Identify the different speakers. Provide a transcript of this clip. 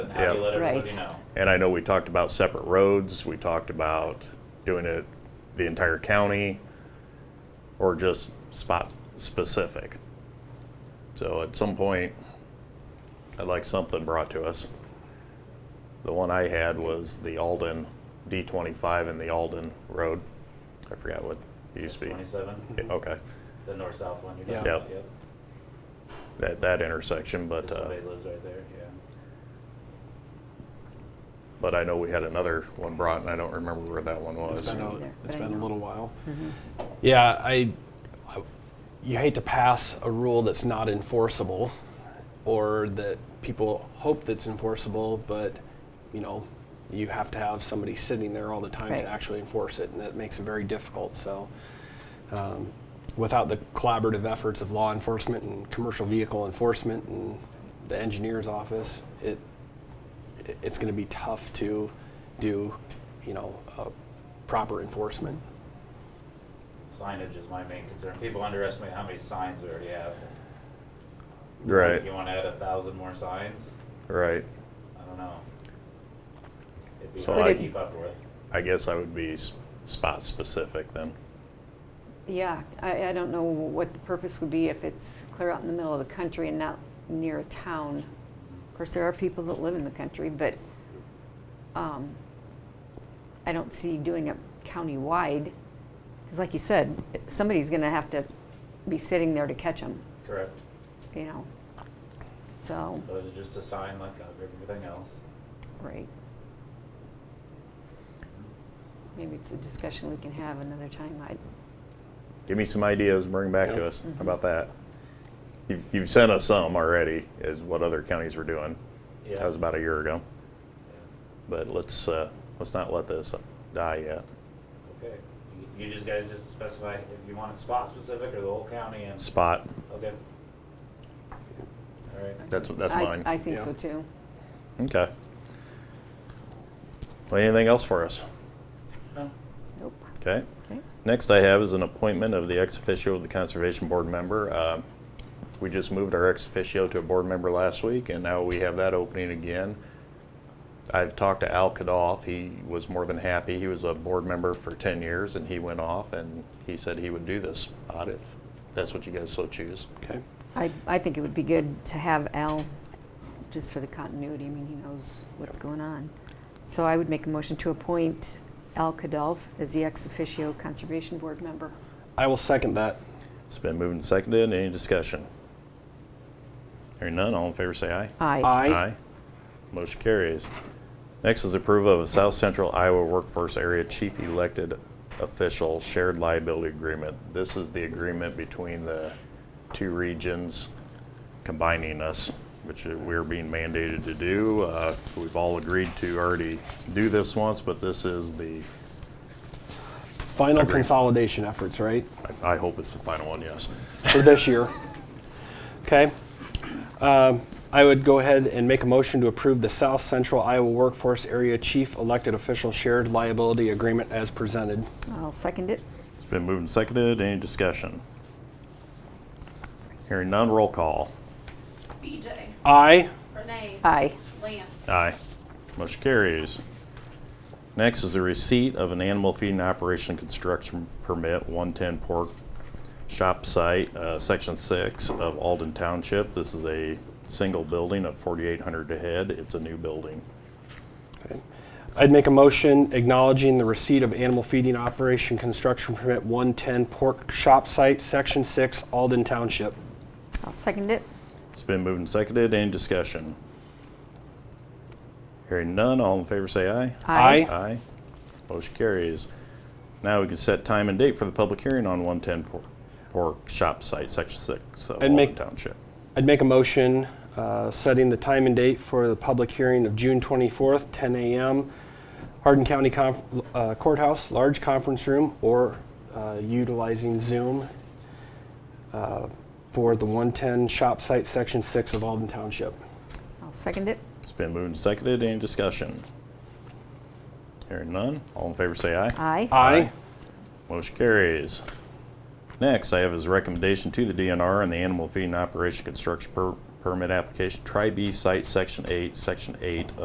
Speaker 1: and how do you
Speaker 2: Yeah.
Speaker 1: let everybody
Speaker 3: Right.
Speaker 1: know?
Speaker 2: And I know we talked about separate roads, we talked about doing it the entire county or just spot specific. So at some point, I'd like something brought to us. The one I had was the Alden D twenty-five and the Alden Road. I forgot what it used to be.
Speaker 1: Twenty-seven,
Speaker 2: Yeah, Okay,
Speaker 1: the north-south one you're
Speaker 4: Yeah.
Speaker 1: talking about,
Speaker 2: Yep.
Speaker 1: yep.
Speaker 2: that, that intersection,
Speaker 1: If
Speaker 2: but, uh,
Speaker 1: Somebody lives right there, yeah.
Speaker 2: but I know we had another one brought and I don't remember where that one was.
Speaker 4: It's been a,
Speaker 3: either, but
Speaker 4: it's
Speaker 3: I
Speaker 4: been a
Speaker 3: know. Mm-hmm.
Speaker 4: little while. Yeah, I, I- you hate to pass a rule that's not enforceable, or that people hope that's enforceable, but, you know, you have to have somebody sitting there all the time
Speaker 3: Right.
Speaker 4: to actually enforce it, and that makes it very difficult, so. um, Without the collaborative efforts of law enforcement and commercial vehicle enforcement and the engineer's office, it, it- it's gonna be tough to do, you know, uh, proper enforcement.
Speaker 1: Signage is my main concern. People underestimate how many signs we already have.
Speaker 2: Right,
Speaker 1: You wanna add a thousand more signs?
Speaker 2: right.
Speaker 1: I don't know. It'd be
Speaker 2: So
Speaker 1: hard
Speaker 3: I-
Speaker 1: to keep up with.
Speaker 2: I guess I would be s- spot specific then.
Speaker 3: Yeah, I, I don't know what the purpose would be if it's clear out in the middle of the country and not near a town. Of course, there are people that live in the country, but um, I don't see doing it countywide. Because like you said, somebody's going to have to be sitting there to catch them,
Speaker 1: Correct.
Speaker 3: you know? So,
Speaker 1: Those are just a sign like of everything else.
Speaker 3: right. Maybe it's a discussion we can have another time. I,
Speaker 2: Give me some ideas, bring back to
Speaker 4: Yeah.
Speaker 2: us. How about that? You've, you've sent us some already, is what other counties were doing. That
Speaker 1: Yeah.
Speaker 2: was about a year ago.
Speaker 1: Yeah.
Speaker 2: But let's, uh, let's not let this die yet.
Speaker 1: Okay. You- You just guys just specify if you want it spot specific or the whole county and,
Speaker 2: Spot,
Speaker 1: okay. All right.
Speaker 2: that's, that's
Speaker 3: I-
Speaker 2: mine.
Speaker 3: I think
Speaker 4: Yeah.
Speaker 3: so too.
Speaker 2: Okay. Well, anything else for us?
Speaker 1: No.
Speaker 3: Nope.
Speaker 2: Okay.
Speaker 3: Okay.
Speaker 2: Next I have is an appointment of the ex officio of the Conservation Board member. Uh, We just moved our ex officio to a board member last week, and now we have that opening again. I've talked to Al Kadoff. He was more than happy. He was a board member for 10 years, and he went off, and he said he would do this spot if that's what you guys so choose.
Speaker 4: Okay.
Speaker 3: I, I think it would be good to have Al, just for the continuity, I mean, he knows what's going on. So I would make a motion to appoint Al Kadolf as the ex officio Conservation Board member.
Speaker 4: I will second that.
Speaker 2: It's been moved and seconded. Any discussion? Hearing none, all in favor say aye.
Speaker 3: Aye.
Speaker 4: Aye.
Speaker 2: Motion carries. Next is approval of a South Central Iowa Workforce Area Chief Elected Official Shared Liability Agreement. This is the agreement between the two regions combining us, which we're being mandated to do. Uh, We've all agreed to already do this once, but this is the,
Speaker 4: Final consolidation efforts, right,
Speaker 2: I- I hope it's the final one, yes.
Speaker 4: for this year. Okay. Um, I would go ahead and make a motion to approve the South Central Iowa Workforce Area Chief Elected Official Shared Liability Agreement as presented.
Speaker 3: I'll second it.
Speaker 2: It's been moved and seconded. Any discussion? Hearing none, roll call.
Speaker 5: BJ,
Speaker 4: Aye.
Speaker 5: Renee,
Speaker 3: Aye.
Speaker 5: Lance.
Speaker 2: Aye. Motion carries. Next is the receipt of an animal feeding operation construction permit, 110 Pork Shop Site, uh, Section 6 of Alden Township. This is a single building of 4,800 a head. It's a new building.
Speaker 4: Okay. I'd make a motion acknowledging the receipt of animal feeding operation construction permit 110 Pork Shop Site, Section 6, Alden Township.
Speaker 3: I'll second it.
Speaker 2: It's been moved and seconded. Any discussion? Hearing none, all in favor say aye.
Speaker 4: Aye.
Speaker 2: Aye. Motion carries. Now we can set time and date for the public hearing on 110 Por- Pork Shop Site, Section 6 of
Speaker 4: And make-
Speaker 2: Alden Township.
Speaker 4: I'd make a motion uh, setting the time and date for the public hearing of June 24th, 10 a.m., Hardin County Conf- uh, Courthouse, large conference room, or uh, utilizing Zoom uh, for the 110 Shop Site, Section 6 of Alden Township.
Speaker 3: I'll second it.
Speaker 2: It's been moved and seconded. Any discussion? Hearing none. All in favor say aye.
Speaker 3: Aye.
Speaker 4: Aye.
Speaker 2: Motion carries. Next, I have his recommendation to the DNR and the Animal Feeding Operation Construction Per- Permit Application, Tri-B Site, Section 8, Section 8